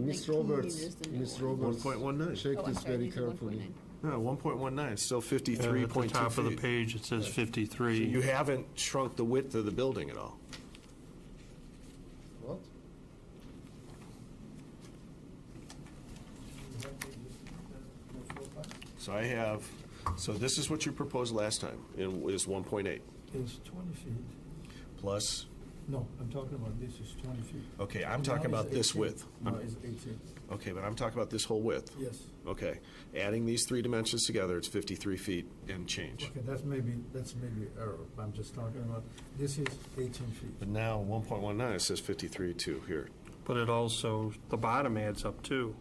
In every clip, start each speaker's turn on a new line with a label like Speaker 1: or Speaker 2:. Speaker 1: Ms.
Speaker 2: 119
Speaker 1: Roberts,
Speaker 2: is the new
Speaker 1: Ms.
Speaker 2: one.
Speaker 1: Roberts.
Speaker 3: 1.19.
Speaker 1: Check
Speaker 2: Oh, I'm
Speaker 1: this
Speaker 2: sorry,
Speaker 1: very
Speaker 2: these are
Speaker 1: carefully.
Speaker 2: 1.9.
Speaker 3: No, one point one nine, still
Speaker 4: And
Speaker 3: fifty-three
Speaker 4: Uh, At the
Speaker 3: point two
Speaker 4: top of the
Speaker 3: feet.
Speaker 4: page, it says
Speaker 3: You
Speaker 4: 53.
Speaker 3: haven't shrunk the width of the building at all.
Speaker 1: What?
Speaker 3: So I have, so this is what you proposed last time, and is one point eight,
Speaker 5: It's 20 feet.
Speaker 3: plus,
Speaker 5: No, I'm talking about this is 20 feet.
Speaker 3: okay, I'm
Speaker 5: Now
Speaker 3: talking
Speaker 5: it's
Speaker 3: about this
Speaker 5: 18.
Speaker 3: width.
Speaker 5: No, it's 18,
Speaker 3: Okay, but I'm talking about this whole width.
Speaker 5: yes.
Speaker 3: Okay, adding these three dimensions together, it's fifty-three feet and change.
Speaker 5: Okay, that's maybe, that's maybe error. I'm just talking about, this is 18 feet.
Speaker 3: But now, one point one nine, it says fifty-three two here.
Speaker 4: But it also, the bottom adds up too.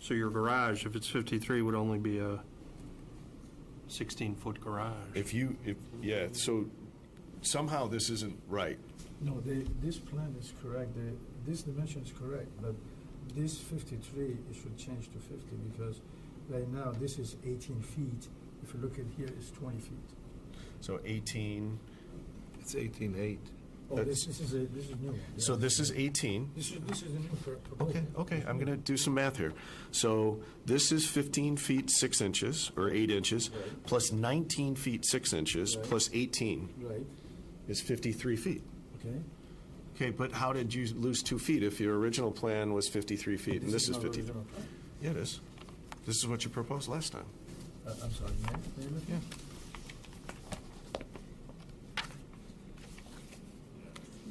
Speaker 4: So your garage, if it's 53, would only be a 16-foot garage.
Speaker 3: If you, if, yeah, so somehow this isn't right.
Speaker 5: No, the, this plan is correct, the, this dimension is correct, but this 53, it should change to 50 because right now, this is 18 feet. If you look at here, it's 20 feet.
Speaker 3: So eighteen,
Speaker 6: It's eighteen eight.
Speaker 5: Oh,
Speaker 3: That's-
Speaker 5: this, this is a, this is new. one.
Speaker 3: so
Speaker 5: Yeah.
Speaker 3: this is eighteen.
Speaker 5: This is, this is a new pro- proposal.
Speaker 3: Okay, okay, I'm going to do some math here. So this is 15 feet 6 inches, or 8 inches, plus 19 feet 6 inches,
Speaker 5: Right.
Speaker 3: plus 18
Speaker 5: Right,
Speaker 3: is 53 feet.
Speaker 5: okay.
Speaker 3: Okay, but how did you lose 2 feet if your original plan was 53 feet and this is
Speaker 5: not
Speaker 3: 53?
Speaker 5: original.
Speaker 3: Yeah, it is. This is what you proposed last time.
Speaker 5: Uh, I'm sorry, may, may I look?
Speaker 3: Yeah.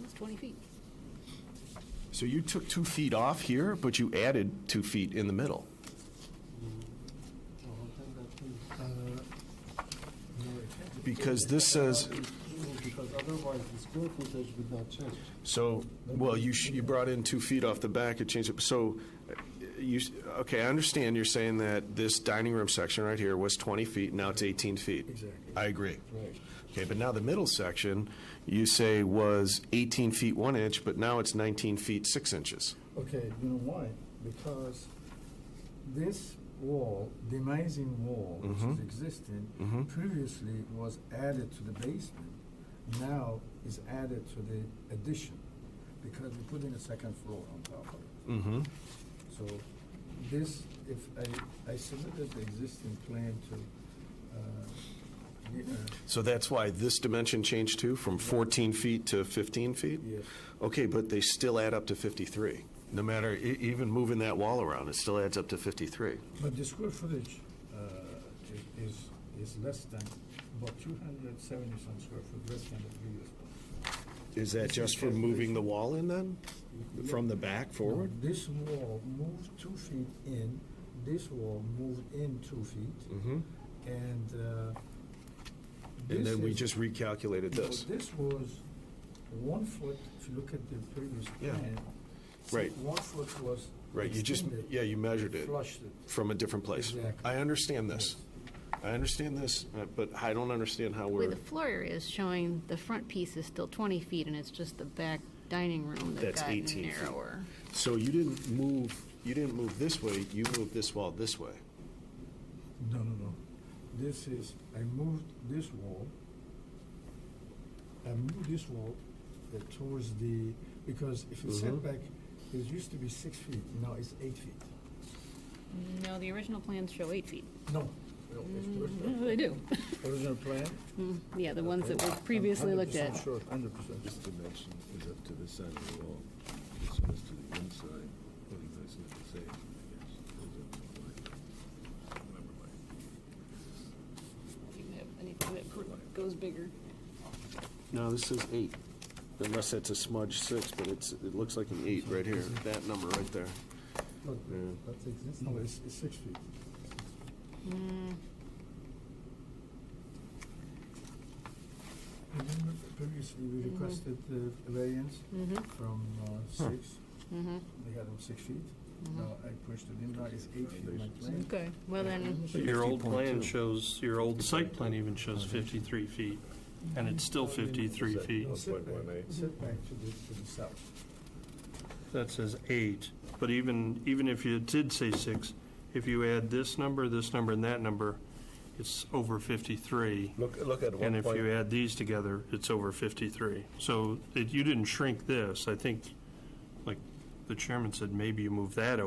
Speaker 2: It's 20 feet.
Speaker 3: So you took 2 feet off here, but you added 2 feet in the middle.
Speaker 5: Uh, no, it can't be.
Speaker 3: Because this says,
Speaker 1: Because otherwise, the square footage would not change.
Speaker 3: so, well, you, sh- you brought in 2 feet off the back, it changed it, so uh, you, s- okay, I understand you're saying that this dining room section right here was 20 feet, now it's 18 feet.
Speaker 5: Exactly.
Speaker 3: I agree.
Speaker 1: Right.
Speaker 3: Okay, but now the middle section, you say was 18 feet 1 inch, but now it's 19 feet 6 inches.
Speaker 5: Okay, you know why? Because this wall, demising wall, which is
Speaker 3: Mm-hmm.
Speaker 5: existing, previously was added to the basement. Now is added to the addition, because we put in a second floor on top of it.
Speaker 3: Mm-hmm.
Speaker 5: So this, if I, I submitted the existing plan to, uh, the, uh,
Speaker 3: So that's why this dimension changed too, from 14 feet to 15 feet?
Speaker 5: Yes.
Speaker 3: Okay, but they still add up to 53. No matter, e- even moving that wall around, it still adds up to 53.
Speaker 5: But the square footage uh, i- is, is less than, about 270-some square foot less than the previous one.
Speaker 3: Is that just for moving the wall in then? From the back forward?
Speaker 5: Now, This wall moved two feet in, this wall moved in two feet,
Speaker 3: Mm-hmm.
Speaker 5: and uh,
Speaker 3: And
Speaker 5: this
Speaker 3: then we
Speaker 5: is-
Speaker 3: just recalculated
Speaker 5: no,
Speaker 3: this.
Speaker 5: This was one foot, if you look at the previous
Speaker 3: Yeah.
Speaker 5: plan. see,
Speaker 3: Right.
Speaker 5: One foot was
Speaker 3: Right, you just,
Speaker 5: extended,
Speaker 3: yeah, you measured it
Speaker 5: Flushed it.
Speaker 3: from a different place.
Speaker 5: Exactly.
Speaker 3: I understand this. I understand this, uh, but I don't understand how
Speaker 2: Where the
Speaker 3: we're,
Speaker 2: floor area is showing, the front piece is still 20 feet, and it's just the back dining room that
Speaker 3: That's
Speaker 2: got
Speaker 3: 18 feet.
Speaker 2: narrower.
Speaker 3: so you didn't move, you didn't move this way, you moved this wall this way.
Speaker 5: No, no, no. This is, I moved this wall. I moved this wall uh, towards the, because if it's set
Speaker 2: Mm-hmm.
Speaker 3: Mhm.
Speaker 5: back, it used to be six feet, now it's eight feet.
Speaker 2: No, the original plans show eight feet.
Speaker 5: No.
Speaker 2: No, they do. Mm,
Speaker 5: Original plan?
Speaker 2: Yeah, the ones that were previously looked at.
Speaker 5: Hundred percent.
Speaker 6: This dimension is up to the side of the wall. This one is to the inside. Well, you guys know the same, I guess. Goes up to the line. Remember my-
Speaker 2: Anything that goes bigger.
Speaker 3: No, this is eight, unless that's a smudge six, but it's, it looks like an eight right here, that number right there.
Speaker 1: That's existing.
Speaker 5: No, it's, it's six feet.
Speaker 2: Mm-hmm. Mm-hmm.
Speaker 5: Remember previously we requested the variance
Speaker 2: Mm-hmm.
Speaker 5: from uh, six? They had them six feet. Now I pushed it in, now it's eight feet, my plan.
Speaker 2: Mm-hmm. Okay, well then,
Speaker 4: But Your old plan shows, your old site plan even shows 53 feet, and it's still 53 feet.
Speaker 5: No, Setback setback to the, to the south.
Speaker 4: That says eight, but even, even if you did say six, if you add this number, this number, and that number, it's over 53.
Speaker 3: Look, look at
Speaker 4: And if you add these together, it's over 53. So it- you didn't shrink this. I think, like the chairman said, maybe you move that